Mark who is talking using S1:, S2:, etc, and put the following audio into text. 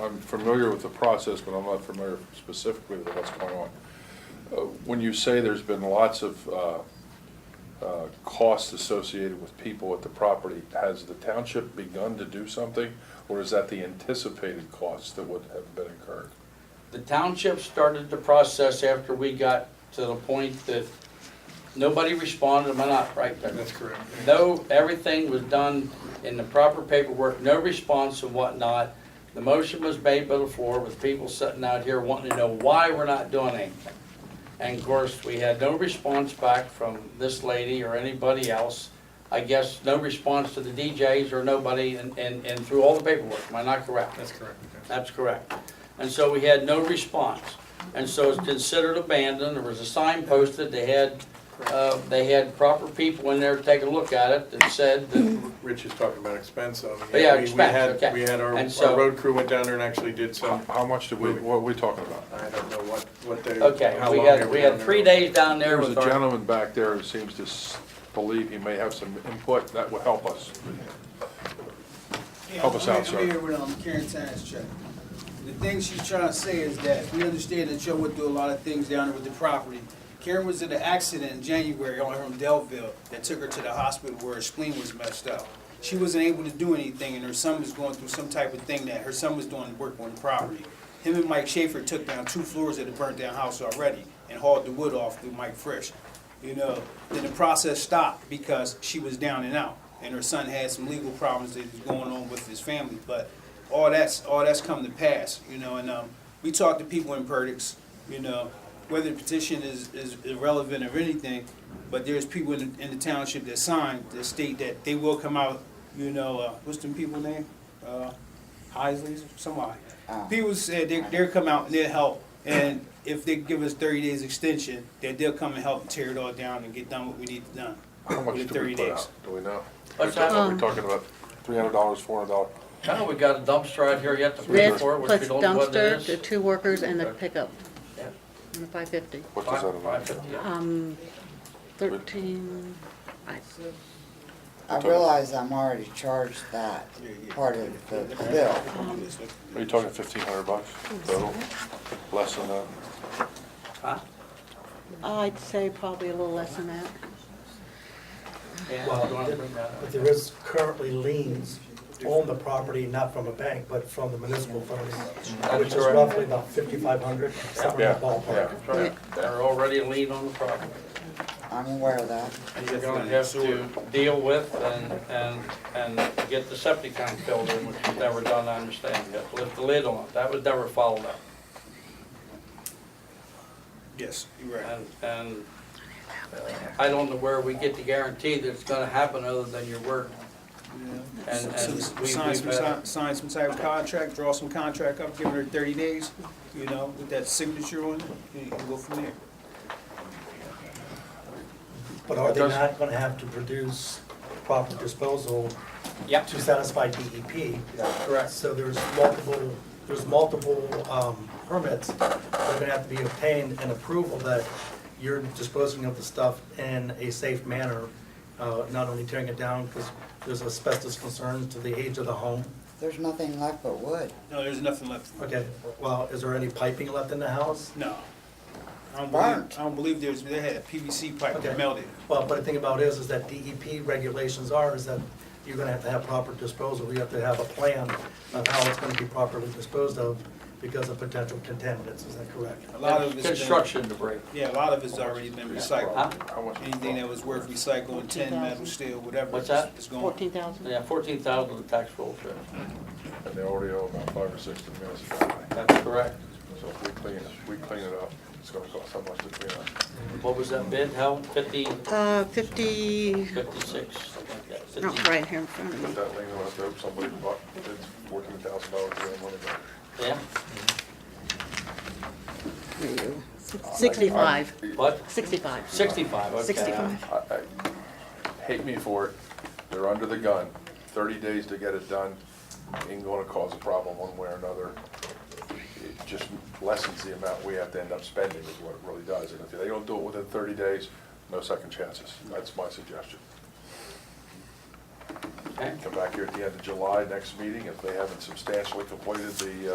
S1: I'm familiar with the process, but I'm not familiar specifically with what's going on. Uh, When you say there's been lots of uh, uh, costs associated with people at the property, has the township begun to do something? Or is that the anticipated costs that would have been incurred?
S2: The township started the process after we got to the point that nobody responded, am I not right there?
S3: That's correct.
S2: No, everything was done in the proper paperwork, no response and whatnot. The motion was made by the floor with people sitting out here wanting to know why we're not doing anything. And of course, we had no response back from this lady or anybody else. I guess no response to the DJs or nobody and, and, and through all the paperwork, am I not correct?
S3: That's correct.
S2: That's correct. And so we had no response. And so it's considered abandoned, there was a sign posted, they had, uh, they had proper people in there to take a look at it and said that,
S3: Rich is talking about expense of it.
S2: Oh, Yeah,
S3: we- we
S2: expense,
S3: had-
S2: okay.
S3: We had our,
S2: And so-
S3: our road crew went down there and actually did
S1: How
S3: some,
S1: how much did we, what are we talking about?
S3: I don't know what, what they, how long
S2: okay,
S3: they
S2: we
S3: were
S2: had, we
S3: down
S2: had
S3: there.
S2: three days down there
S1: There's a
S2: with our,
S1: gentleman back there who seems to s- believe he may have some input that will help us.
S4: Yeah,
S1: Help us
S4: I'm
S1: out,
S4: here-
S1: sir.
S4: I'm here with um, Karen Sines, Chuck. The thing she's trying to say is that we understand that Chuck would do a lot of things down there with the property. Karen was in an accident in January on her in Delville that took her to the hospital where her spleen was messed up. She wasn't able to do anything and her son was going through some type of thing that her son was doing work on the property. Him and Mike Schaefer took down two floors of the burnt down house already and hauled the wood off through Mike Fresh. You know, then the process stopped because she was down and out, and her son had some legal problems that was going on with his family. But all that's all that's come to pass, you know. And um, we talked to people in Perdix, you know, whether the petition is, is irrelevant or anything, but there's people in the, in the township that signed that state that they will come out. You know, uh, what's them people name? Uh, Heisley's, somebody. People said they, they'll come out and they'll help, and if they give us thirty days extension, that they'll come and help and tear it all down and get done what we need to done.
S1: How much
S4: within
S1: do we
S4: 30
S1: put
S4: days.
S1: out? Do we know? Are we
S2: What's that?
S1: talking about three hundred dollars, four hundred dollars?
S2: no, we got a dumpster out here yet to pay
S5: This
S2: for, which
S5: plus
S2: we don't know what
S5: dumpster,
S2: it
S5: the
S2: is.
S5: two workers and the pickup,
S2: Yeah.
S5: and the five fifty.
S1: What does that
S2: Five-
S1: amount to?
S2: five fifty.
S5: Um, thirteen, I,
S6: I realize I'm already charged that part of the bill.
S1: Are you talking fifteen hundred bucks total? Less than that?
S2: Huh?
S5: I'd say probably a little less than that.
S2: Yeah,
S7: Well,
S2: you wanna bring that up?
S7: But there is currently liens on the property, not from a bank, but from the municipal funds, which is roughly about fifty-five hundred, somewhere in
S1: Yeah,
S7: the ballpark.
S1: yeah.
S2: Right. They're already a lien on the property.
S6: I'm aware of that.
S2: And you're gonna have to deal with and, and, and get the septic tank filled in, which was never done, I understand, you have to lift the lid on it, that was never followed up.
S4: Yes, you're right.
S2: And, and uh, I don't know where we get the guarantee that it's gonna happen other than your word. And, and
S4: So,
S2: we,
S4: Sign some,
S2: we've, uh,
S4: si- sign some type of contract, draw some contract up, give her thirty days, you know, with that signature on it, and you can go from there.
S7: But are they
S1: It does-
S7: not gonna have to produce proper disposal
S2: yep,
S7: to satisfy DEP?
S2: correct.
S7: So there's multiple, there's multiple um, permits that are gonna have to be obtained and approval that you're disposing of the stuff in a safe manner, uh, not only tearing it down because there's asbestos concerns to the age of the home.
S6: There's nothing left but wood.
S4: No, there's nothing left.
S7: Okay, well, is there any piping left in the house?
S4: No. I don't believe,
S6: Burnt.
S4: I don't believe there's, they had a PVC pipe
S7: Okay.
S4: that melted.
S7: Well, but the thing about it is, is that DEP regulations are, is that you're gonna have to have proper disposal, you have to have a plan of how it's gonna be properly disposed of because of potential contaminants, is that correct?
S4: A lot of it's been-
S2: Construction debris.
S4: Yeah, a lot of it's already been
S2: Huh?
S4: recycled.
S1: How much?
S4: Anything that was worth recycling, tin, metal, steel, whatever.
S2: What's that?
S4: It's gone.
S5: Fourteen thousand?
S2: Yeah, fourteen thousand the tax roll says.
S1: And they already owe about five or six to the municipality.
S2: That's correct.
S1: So if we clean, it- if we clean it up, it's gonna cost how much to clean up?
S2: What was that bid, how, fifty,
S5: Uh, fifty,
S2: fifty-six, something like that?
S5: not
S2: 50.
S5: right here in front of
S1: Put
S5: me.
S1: that lien on it, though, somebody bought, it's fourteen thousand dollars, they don't want to
S2: Yeah,
S5: Sixty-five,
S2: what,
S5: sixty-five.
S2: sixty-five, okay.
S5: 65.
S1: I, I, hate me for it, they're under the gun, thirty days to get it done, ain't gonna cause a problem one way or another. It just lessens the amount we have to end up spending is what it really does, and if they don't do it within thirty days, no second chances, that's my suggestion.
S2: Okay.
S1: Come back here at the end of July, next meeting, if they haven't substantially completed the, uh,